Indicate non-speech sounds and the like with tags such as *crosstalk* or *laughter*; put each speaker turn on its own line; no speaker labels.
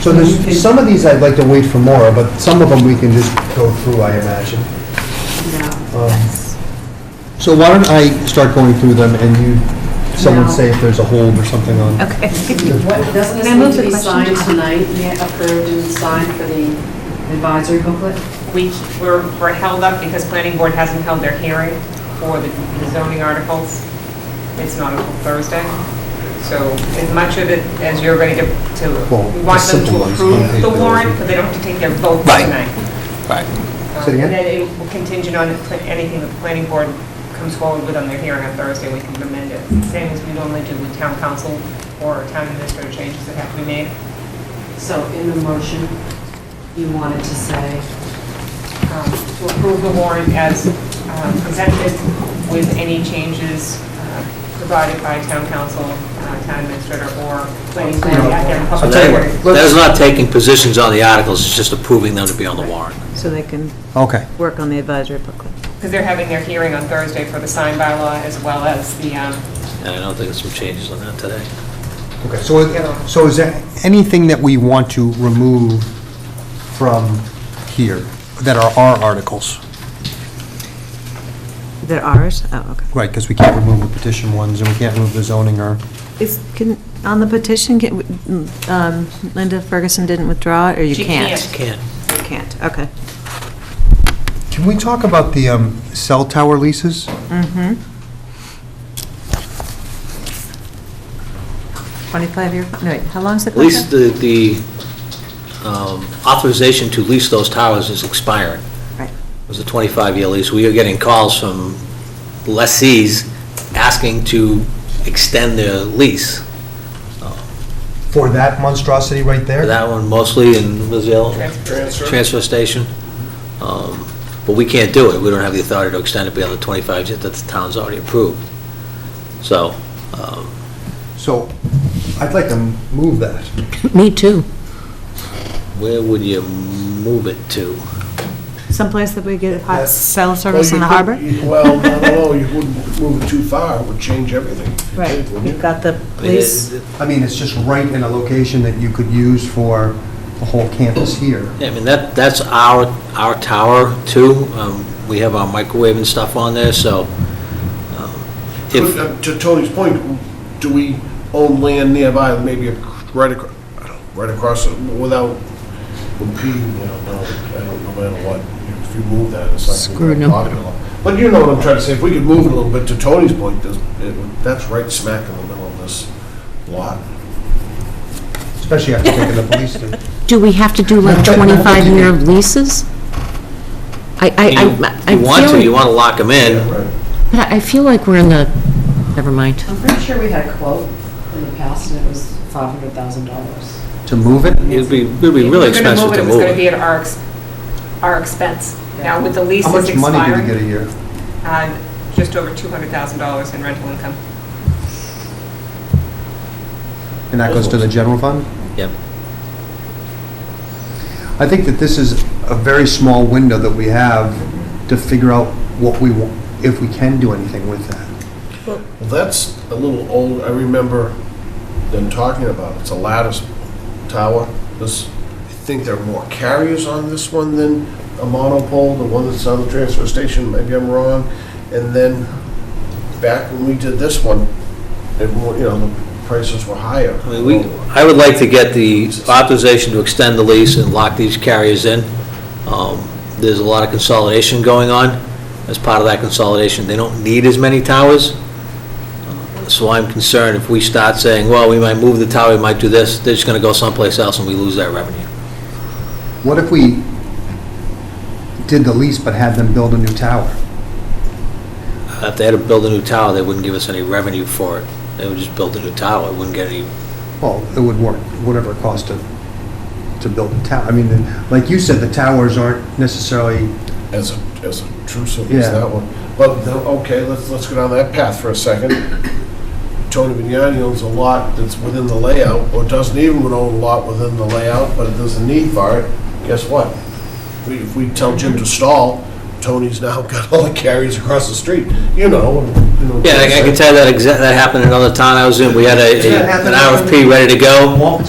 So there's, some of these I'd like to wait for more, but some of them we can just go through, I imagine. Um, So why don't I start going through them and you, someone
No.
say if there's a hold or something on.
Okay.
What, doesn't this
Can I move
need to
the
be
question
signed
to-
tonight, Yeah, approved and signed for the advisory booklet?
We, we're, we're held up because planning board hasn't held their hearing for the the zoning articles. It's not until Thursday. So as much of it as you're ready to, to,
Well,
we want
the
them
simple
to
ones, one
approve
page
the
bills.
warrant, but they don't have to take their vote
Right.
tonight.
Right.
Um,
Say it again?
And then it will contingent on if pla- anything that the planning board comes forward with on their hearing on Thursday, we can amend it. Same as we normally do with town council or town administrator changes that have to be made.
So in the motion, you wanted to say,
um, to approve the warrant as um, presented with any changes uh, provided by town council, uh, town administrator, or planning board at their
So
public
that-
hearing.
That is not taking positions on the articles, it's just approving them to be on the warrant.
So they can
Okay.
work on the advisory booklet.
Because they're having their hearing on Thursday for the sign bylaw as well as the, um,
And I don't think there's some changes on that today.
Okay, so, it- so is there anything that we want to remove from here that are our articles?
They're ours? Oh, okay.
Right, because we can't remove the petition ones, and we can't remove the zoning or,
Is, can, on the petition, can- um, Linda Ferguson didn't withdraw it, or you
She
can't?
can't.
Can't.
You can't, okay.
can we talk about the um, cell tower leases?
Mm-hmm. 25-year, no, wait, how long's the
At least
contract?
the, the um, authorization to lease those towers is expiring.
Right.
It was a 25-year lease. We are getting calls from lessees asking to extend their lease.
For that monstrosity right there?
That one mostly in Brazil.
Transfer.
Transfer station. Um, But we can't do it. We don't have the authority to extend it beyond the 25 years that the town's already approved. So, um,
So, I'd like to move that.
Me too.
where would you move it to?
Someplace that we get hot
Yes.
cell service in the
Well, you
harbor?
could- Well, no, no, no, you wouldn't move it too far, it would change everything.
Right, you've got the
I mean,
police.
it-
I mean, it's just right in a location that you could use for the whole campus here.
Yeah, I mean, that, that's our, our tower too. Um, We have our microwave and stuff on there, so um, if,
But, uh, To Tony's point, do we own land nearby, maybe ac- right across, right across, it without impeding, you know, no, I don't know, no matter what, if you move that, it's like.
Screw no.
But you know what I'm trying to say, if we could move it a little bit, to Tony's point, there's- it would- that's right smack in the middle of this lot.
Especially after taking the police to.
Do we have to do like 25-year leases? I, I,
you
I- I
you want to, you
feel,
want to lock them in.
Right.
but I feel like we're in the, never mind.
I'm pretty sure we had a quote in the past and it was $500,000.
To move it?
It'd be, it'd be really expensive to
If we were going to move it,
move
it was going to be
it.
at our, ex- our expense. Now, with the lease
How
that's
much money do we get
expiring,
a year?
uh, just over $200,000 in rental income.
And that goes to the general fund?
Yep.
I think that this is a very small window that we have to figure out what we, wa- if we can do anything with that.
Well, that's a little old, I remember them talking about, it. it's a lattice tower. This, I think there are more carriers on this one than a monopole, the one that's on the transfer station, maybe I'm wrong. And then, back when we did this one, everyone, you know, the prices were higher.
I mean, we, I would like to get the authorization to extend the lease and lock these carriers in. Um, There's a lot of consolidation going on. As part of that consolidation, they don't need as many towers. Uh, So I'm concerned if we start saying, well, we might move the tower, we might do this, they're just going to go someplace else and we lose that revenue.
What if we did the lease but had them build a new tower?
If they had to build a new tower, they wouldn't give us any revenue for it. They would just build a new tower, wouldn't get any,
Well, it would work, whatever it costs to, to build a tower. I mean, like you said, the towers aren't necessarily,
as as intrusive
Yeah.
as that one. But, the- okay, let's, let's go down that path for a second. Tony Vignani owns a lot that's within the layout, or doesn't even own a lot within the layout, but there's a need for it. Guess what? We- If we tell Jim to stall, Tony's now *laughs* got all the carriers across the street, you know. and, you know,
yeah, I I can tell that exact, that happened in another town I was in. We had a,
It's gonna happen.
an RFP ready to go.
won't